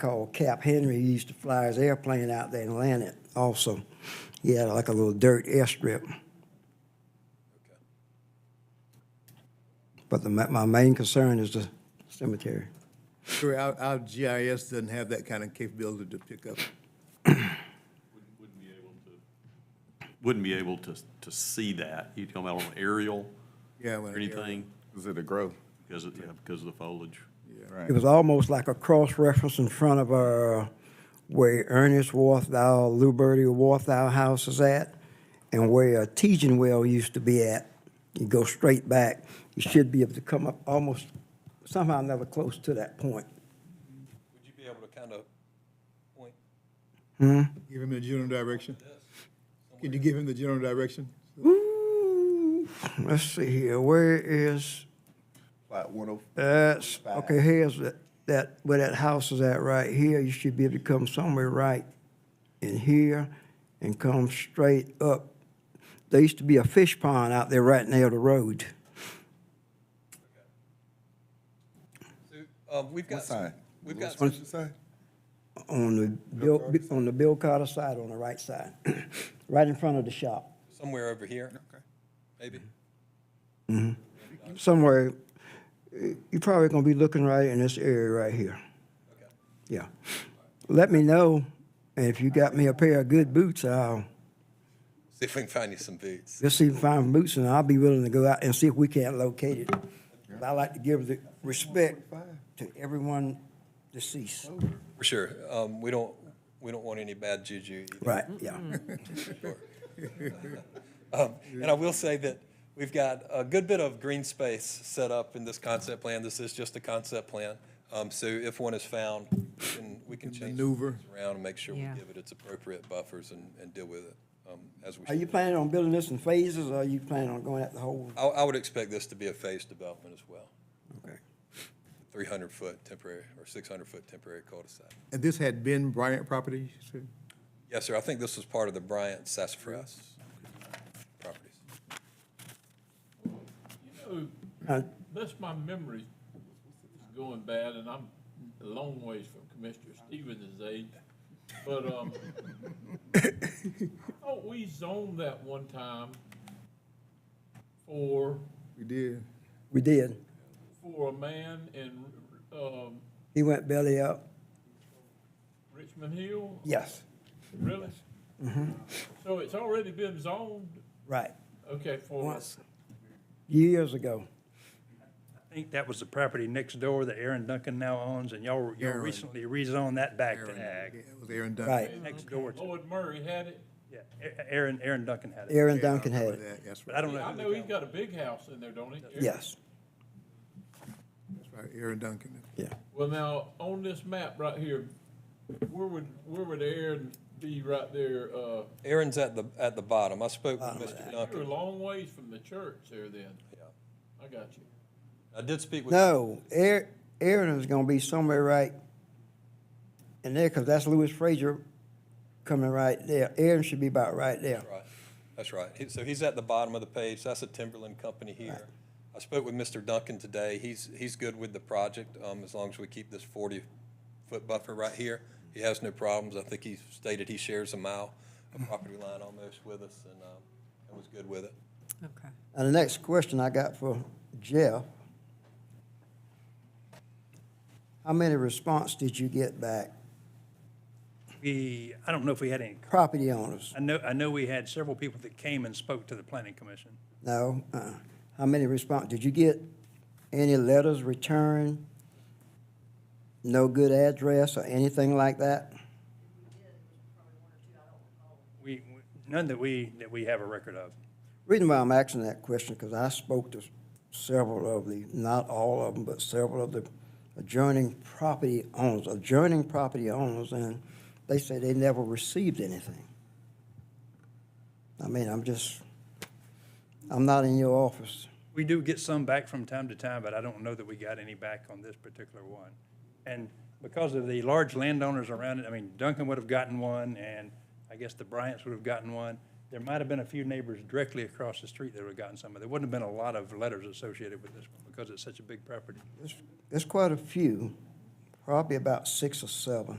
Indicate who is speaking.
Speaker 1: called Cap Henry. He used to fly his airplane out there and land it also. He had like a little dirt airstrip. But the, ma- my main concern is the cemetery.
Speaker 2: Sure, our, our GIS doesn't have that kind of capability to pick up.
Speaker 3: Wouldn't be able to, wouldn't be able to, to see that. You talking about on aerial
Speaker 2: Yeah,
Speaker 3: or
Speaker 2: when-
Speaker 3: anything?
Speaker 4: Is it a grove?
Speaker 3: Because of, yeah, because of the foliage.
Speaker 1: It was almost like a cross-reference in front of uh, where Ernest Warthow, Lou Bertie Warthow House is at, and where uh, Tejan Well used to be at. You go straight back, you should be able to come up almost, somehow or another, close to that point.
Speaker 5: Would you be able to kind of point?
Speaker 2: Give him the general direction. Can you give him the general direction?
Speaker 1: Ooh, let's see here, where is,
Speaker 4: Plat one oh.
Speaker 1: that's, okay, here's that, that, where that house is at right here, you should be able to come somewhere right in here and come straight up. There used to be a fish pond out there right near the road.
Speaker 5: So, um, we've got.
Speaker 4: What side?
Speaker 5: We've got,
Speaker 4: What's the side?
Speaker 1: On the Bill, on the Bill Carter side, on the right side, right in front of the shop.
Speaker 5: somewhere over here. Okay. Maybe.
Speaker 1: Somewhere, eh, you're probably gonna be looking right in this area right here.
Speaker 5: Okay.
Speaker 1: Yeah. Let me know, and if you got me a pair of good boots, I'll,
Speaker 5: See if we can find you some boots.
Speaker 1: let's see if I find boots, and I'll be willing to go out and see if we can't locate it. But I like to give the respect to everyone deceased.
Speaker 5: For sure. Um, we don't, we don't want any bad juju either.
Speaker 1: Right, yeah.
Speaker 5: Um, And I will say that we've got a good bit of green space set up in this concept plan. This is just a concept plan. Um, So if one is found, we can- we can change things
Speaker 2: maneuver.
Speaker 5: around and make sure we
Speaker 6: Yeah.
Speaker 5: give it its appropriate buffers and, and deal with it um, as we
Speaker 1: Are you
Speaker 5: should.
Speaker 1: planning on building this in phases, or are you planning on going at the whole?
Speaker 5: I, I would expect this to be a phased development as well,
Speaker 1: Okay.
Speaker 5: 300-foot temporary or 600-foot temporary cul-de-sac.
Speaker 2: And this had been Bryant property, you said?
Speaker 5: Yes, sir, I think this was part of the Bryant Sassafras properties.
Speaker 7: Oh,
Speaker 1: Uh,
Speaker 7: That's my memory is going bad, and I'm a long ways from Commissioner Stevens' age. But, um, I thought we zoned that one time for,
Speaker 2: We did.
Speaker 1: We did.
Speaker 7: for a man in, um,
Speaker 1: He went belly up.
Speaker 7: Richmond Hill,
Speaker 1: Yes,
Speaker 7: really? So it's already been zoned,
Speaker 1: right.
Speaker 7: okay, for,
Speaker 1: Once, years ago.
Speaker 8: I think that was the property next door that Aaron Duncan now owns, and y'all, y'all
Speaker 2: Aaron.
Speaker 8: recently rezoned that back to
Speaker 2: Aaron, yeah,
Speaker 8: ag.
Speaker 2: It was Aaron Dunn.
Speaker 1: Right.
Speaker 8: Next door to,
Speaker 7: Lloyd Murray had it.
Speaker 8: yeah, A- Aaron, Aaron Duncan had it.
Speaker 1: Aaron Duncan had it.
Speaker 2: That's
Speaker 8: But I
Speaker 2: right,
Speaker 8: don't know.
Speaker 7: I
Speaker 8: who the
Speaker 7: know
Speaker 8: guy
Speaker 7: he's got a big house in there, don't he?
Speaker 1: Yes,
Speaker 2: that's right, Aaron Duncan.
Speaker 1: yeah.
Speaker 7: Well, now, on this map right here, where would, where would Aaron be right there? Uh,
Speaker 5: Aaron's at the, at the bottom. I spoke with Mr.
Speaker 7: you're a
Speaker 5: Duncan.
Speaker 7: long ways from the church there then.
Speaker 5: Yeah.
Speaker 7: I got you.
Speaker 5: I did speak with.
Speaker 1: No, Aaron, Aaron is gonna be somewhere right in there, cause that's Louis Frazier coming right there. Aaron should be about right there.
Speaker 5: Right, that's right. He- So he's at the bottom of the page, that's a timberland company here. I spoke with Mr. Duncan today, he's, he's good with the project, um, as long as we keep this forty-foot buffer right here. He has no problems, I think he stated he shares a mile of property line almost with us, and, um, and was good with it.
Speaker 6: Okay.
Speaker 1: And the next question I got for Jeff. How many response did you get back?
Speaker 8: We, I don't know if we had any,
Speaker 1: Property owners?
Speaker 8: I know, I know we had several people that came and spoke to the planning commission.
Speaker 1: No, uh-uh. How many response, did you get any letters returned? No good address or anything like that?
Speaker 8: We, we- none that we, that we have a record of.
Speaker 1: Reason why I'm asking that question, because I spoke to several of the, not all of them, but several of the adjoining property owners, adjoining property owners, and they say they never received anything. I mean, I'm just, I'm not in your office.
Speaker 8: We do get some back from time to time, but I don't know that we got any back on this particular one. And because of the large landowners around it, I mean, Duncan would have gotten one, and I guess the Bryants would have gotten one. There might have been a few neighbors directly across the street that would have gotten some, but there wouldn't have been a lot of letters associated with this one because it's such a big property.
Speaker 1: There's quite a few probably about six or seven.